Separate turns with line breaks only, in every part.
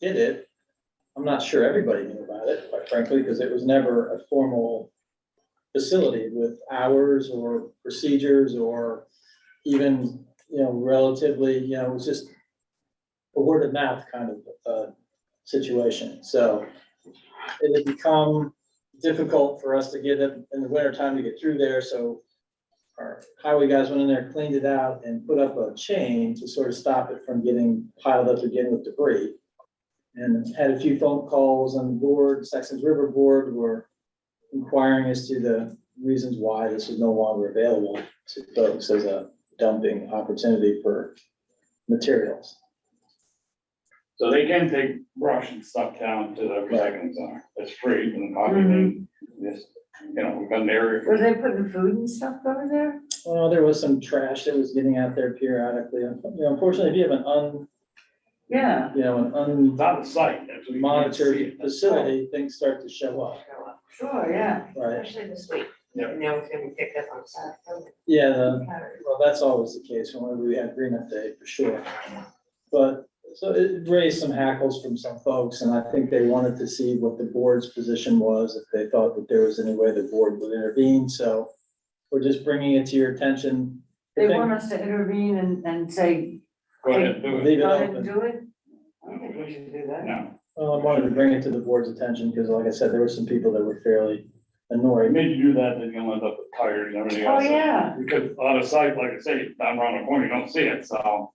did it, I'm not sure everybody knew about it, quite frankly, because it was never a formal facility with hours or procedures or even, you know, relatively, you know, it was just a word of mouth kind of, uh, situation. So it had become difficult for us to get it in the winter time to get through there, so our highway guys went in there, cleaned it out and put up a chain to sort of stop it from getting piled up again with debris. And had a few phone calls on the board, Saxon's River Board were inquiring as to the reasons why this is no longer available to folks as a dumping opportunity for materials.
So they can take brush and stuff down to the recycling center. It's free and obviously,
Mm-hmm.
this, you know, we've got an area.
Were they putting food and stuff over there?
Well, there was some trash that was getting out there periodically. You know, Unfortunately, if you have an un,
Yeah.
you know, an un.
It's out of sight. that's what you can't see
monitored
it.
facility, things start to show up,
Sure, yeah.
right?
Especially this week.
Yeah.
And now it's gonna be picked up on Saturday.
Yeah, the- well, that's always the case when we have Green Up Day, for sure. But, so it raised some hackles from some folks, and I think they wanted to see what the board's position was, if they thought that there was any way the board would intervene, so we're just bringing it to your attention.
They
I think-
want us to intervene and, and say,
Go ahead, do it.
Leave it
go ahead and
open.
do it?
I don't think we should do that.
No,
Well, I wanted to bring it to the board's attention, because like I said, there were some people that were fairly annoyed.
they made you do that, then you'll end up with tires and everything
Oh,
else.
yeah.
Because out of sight, like I say, down around the corner, you don't see it, so.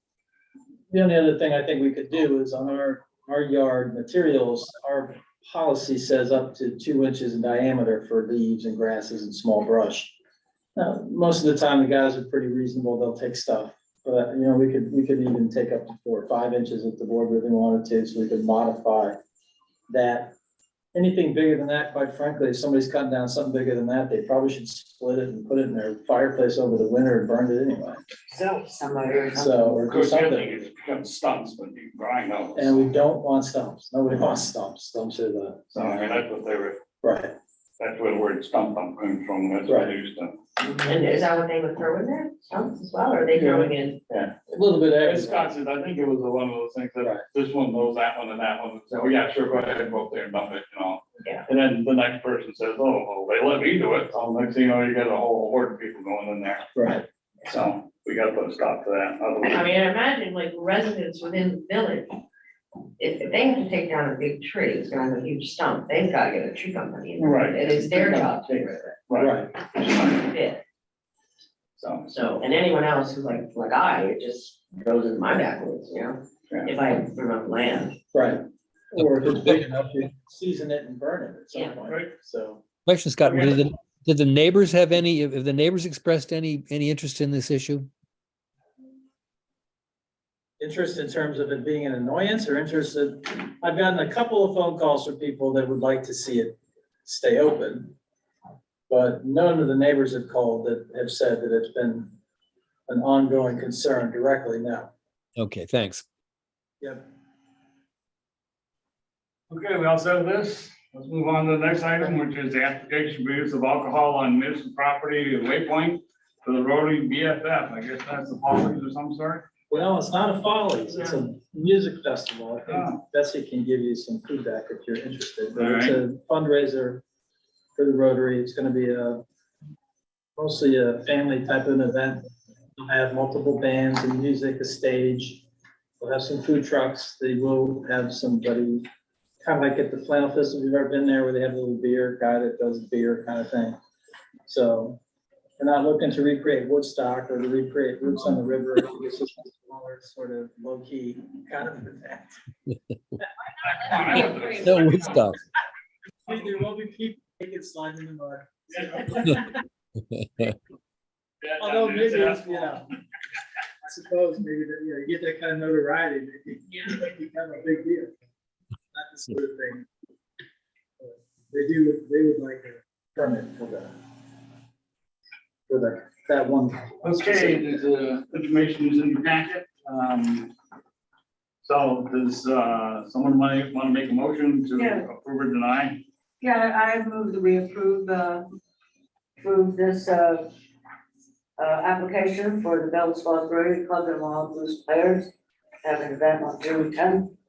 The only other thing I think we could do is on our, our yard materials, our policy says up to two inches in diameter for leaves and grasses and small brush. Now, most of the time, the guys are pretty reasonable, they'll take stuff, but, you know, we could, we could even take up to four or five inches if the board really wanted to, so we could modify that. Anything bigger than that, quite frankly, if somebody's cutting down something bigger than that, they probably should split it and put it in their fireplace over the winter and burn it anyway,
So somebody or something.
so, or
Of
do
course, the
something.
other thing is it becomes stumps when you grind those.
And we don't want stumps. Nobody wants stumps. Stumps are the.
So I mean, that's what they were,
Right.
that's where the word stump comes from, that's what they used to.
And is that what they would throw in there? Stumps as well, or are they throwing in?
A little bit
Yeah,
of. everything.
Wisconsin, I think it was the one of those things
Right.
that this one knows that one and that one, so, oh, yeah, sure, go ahead, go up there and dump it, you know?
Yeah.
And then the next person says, oh, well, they let me do it, so next thing you know, you got a whole horde of people going in there,
Right.
so we gotta put a stop to that.
I
otherwise-
mean, I imagine like residents within the village, if if they have to take down a big tree, it's gonna have a huge stump, they've gotta get a tree company. in there.
Right.
It is their job to get rid of
Right,
Right.
it, Yeah.
so,
so, and anyone else who's like, like I, it just goes in my backwoods, you know?
Yeah.
If I remove land.
Right. Or if it's big enough, you season it and burn it at some
Yeah.
point.
Right.
So.
Question, Scott,
Okay.
did the, did the neighbors have any, have the neighbors expressed any, any interest in this issue?
Interest in terms of it being an annoyance or interest in I've gotten a couple of phone calls from people that would like to see it stay open. But none of the neighbors have called that have said that it's been an ongoing concern directly now.
Okay, thanks.
Yep.
okay, we all said this, let's move on to the next item, which is the application for use of alcohol on municipal property at Waypoint for the Rotary BFF, I guess that's the policies of some sort?
Well, it's not a Follies, it's a music festival. I think Betsy can give you some feedback if you're interested, but it's a fundraiser for the Rotary. It's gonna be a mostly a family type of an event. They'll have multiple bands and music, a stage. They'll have some food trucks. They will have somebody, kind of like at the Flannel Fest, if you've ever been there, where they have a little beer guy that does beer kind of thing. So we're not looking to recreate Woodstock or to recreate Roots on the River. It's just a smaller, sort of low-key kind of event.
No Woodstock.
There will be people taking slide in the mud. Although maybe,
Yeah,
it's, you know, I suppose maybe that, you know, you get that kind of notoriety, maybe it become a big deal. Not the sort of thing. uh, They do, they would like a permit for that. For that, that one.
Okay, there's, uh, information is in the packet, um. So does, uh, someone want, want to make a motion
Yeah.
to approve or deny?
Yeah, I I move that we approve, uh, approve this, uh, uh, application for the Bell's Spa Brewery Club and Wild Goose Players. Have an event on June tenth